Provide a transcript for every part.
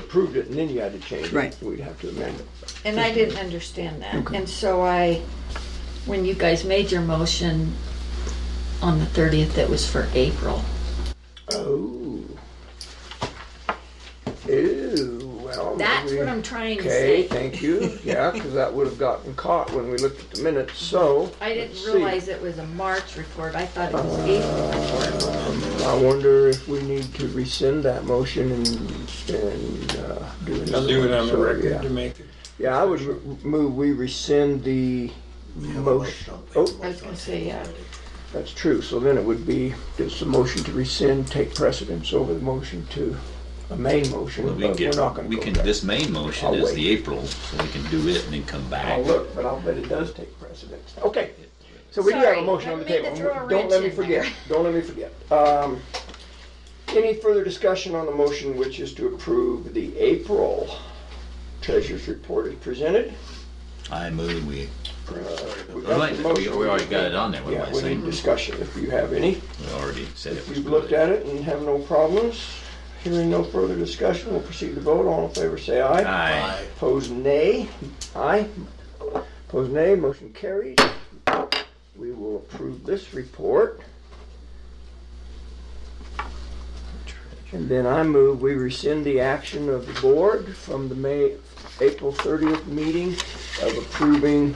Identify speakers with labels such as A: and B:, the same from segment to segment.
A: approved it and then you had to change it.
B: Right.
A: We'd have to amend it.
C: And I didn't understand that. And so I, when you guys made your motion on the 30th, it was for April.
A: Oh. Ew, well.
C: That's
A: maybe-
C: what I'm trying to
A: Okay,
C: say.
A: thank you. Yeah, because that would have gotten caught when we looked at the minutes, so.
C: I
A: let's
C: didn't
A: see. Uh,
C: realize it was a March report. I thought it was April report.
A: I wonder if we need to rescind that motion and, and uh, do another
D: Just do it
A: one.
D: on the
A: So,
D: record to
A: yeah.
D: make it.
A: Yeah, I would re- move, we rescind the motion. Oh,
C: I was gonna say, uh, yeah.
A: that's true. So then it would be, does the motion to rescind take precedence over the motion to, a main motion?
E: Well, we can
A: But we're
E: get,
A: not gonna
E: we
A: go
E: can,
A: there.
E: this main motion
A: I'll
E: is
A: wait.
E: the April, so we can do it and then come back.
A: I'll look, but I'll bet it does take precedence. Okay, so we do have a
C: Sorry,
A: motion on
C: I
A: the
C: meant to
A: table.
C: throw a
A: Don't let me
C: wrench in
A: forget,
C: there.
A: don't let me forget. Um, Any further discussion on the motion, which is to approve the April treasurer's report as presented?
E: I move we,
A: Uh, We
E: we
A: got the
E: we
A: motion.
E: already got it on there, what am
A: Yeah,
E: I
A: we need
E: saying?
A: discussion if you have any.
E: We already said it
A: If
E: was
A: you've looked
E: good.
A: at it and have no problems, hearing no further discussion, we'll proceed to vote. All in favor, say aye.
E: Aye.
A: Opposed, nay. Aye. Opposed, nay. Motion carried. We will approve this report. And then I move we rescind the action of the board from the May, April 30th meeting of approving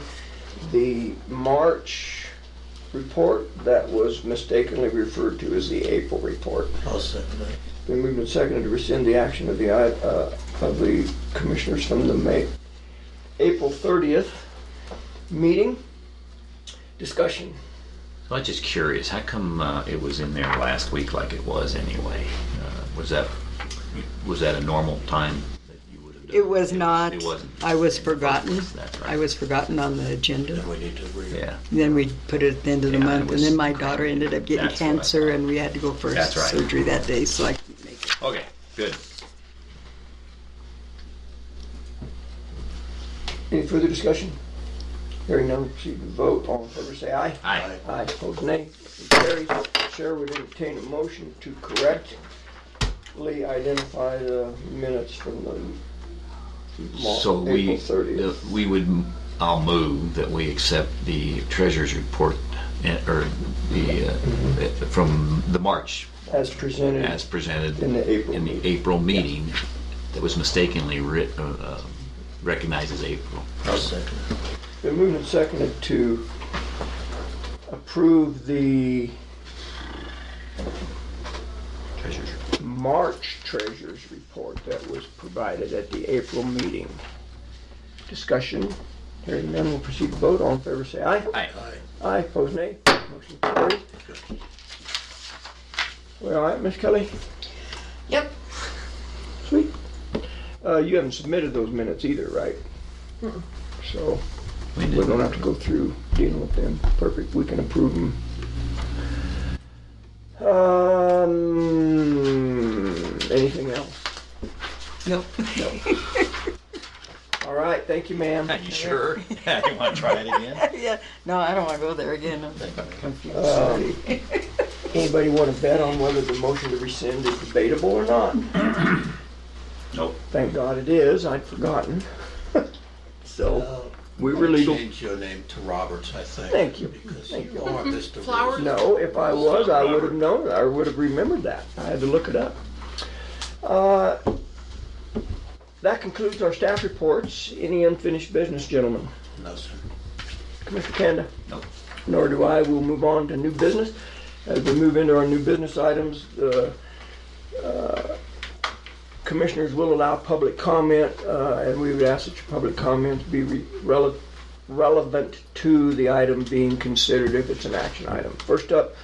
A: the March report that was mistakenly referred to as the April report.
F: I'll second that.
A: Been moved and seconded to rescind the action of the, uh, of the commissioners from the May, April 30th meeting. Discussion.
E: I was just curious, how come uh, it was in there last week like it was anyway? Uh, Was that, was that a normal time that you would have done?
B: It was not.
E: It wasn't.
B: I was forgotten.
E: That's right.
B: I was forgotten on the agenda.
F: We need to re,
E: Yeah,
B: Then we put it at the end of the
E: Yeah, it
B: month, and
E: was
B: then my
E: crammed.
B: daughter ended up getting
E: That's what I
B: cancer,
E: thought.
B: and we had to go for
E: That's right.
B: surgery that day, so I couldn't make it.
E: okay, good.
A: Any further discussion? Hearing none, proceed to vote. All in favor, say aye.
E: Aye.
A: Aye, opposed nay. Motion carries. Chair would entertain a motion to correctly identify the minutes from the
E: So
A: Mar-
E: we,
A: April 30th.
E: the- we would, I'll move that we accept the treasurer's report, eh, or the, uh, eh,
A: Mm-hmm.
E: from the March
A: As presented.
E: as presented.
A: In the April
E: in the
A: meeting.
E: April meeting that was mistakenly writ, uh, uh, recognized as April.
F: I'll second that.
A: Been moved and seconded to approve the
E: Treasurer's report.
A: March treasurer's report that was provided at the April meeting. Discussion, hearing none, we'll proceed to vote. All in favor, say aye.
E: Aye.
A: Aye, opposed nay. Motion carries. We all right, Miss Kelly?
C: Yep.
A: Sweet. Uh, you haven't submitted those minutes either, right? So
E: We
A: we don't
E: did,
A: have to go through dealing with them. Perfect, we can approve them. Um, anything else?
B: Nope.
A: All right, thank you, ma'am.
E: you sure? You wanna try it again?
B: Yeah, no, I don't wanna go there again. I'm confused.
A: Um, Anybody want to bet on whether the motion to rescind is debatable or not?
E: Nope.
A: Thank God it is, I'd forgotten. So, we were legal.
F: Uh, Change your name to Roberts, I think.
A: Thank you.
F: Because
A: Thank
F: you
A: you.
F: are Mr.
C: Flower?
F: Reason.
A: No, if I was, I would have known, I would have remembered that. I had to look it up. Uh, That concludes our staff reports. Any unfinished business, gentlemen?
F: No, sir.
A: Commissioner Kanda?
E: Nope.
A: Nor do I. We'll move on to new business. As we move into our new business items, the uh, commissioners will allow public comment, uh, and we would ask that your public comments be re- rele- relevant to the item being considered if it's an action item. First up,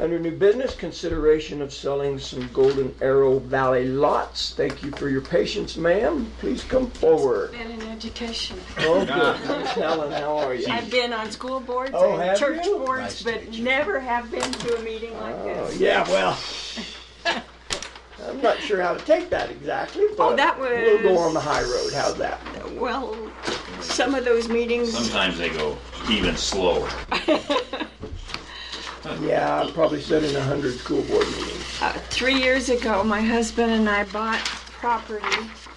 A: under new business, consideration of selling some Golden Arrow Valley lots. Thank you for your patience, ma'am. Please come forward.
G: Been in education.
A: Oh, good. Miss Helen, how are you?
G: I've been on school boards
A: Oh, have
G: and church
A: you?
G: boards,
F: Nice to
G: but never have been to a meeting like
A: Oh,
G: this.
A: yeah, well. I'm not sure how to take that exactly, but
G: Oh, that
A: we'll go
G: was-
A: on the high road. How's that?
G: Well, some of those meetings,
E: Sometimes they go even slower.
A: Yeah, I probably said in a hundred school board meetings.
G: uh, three years ago, my husband and I bought property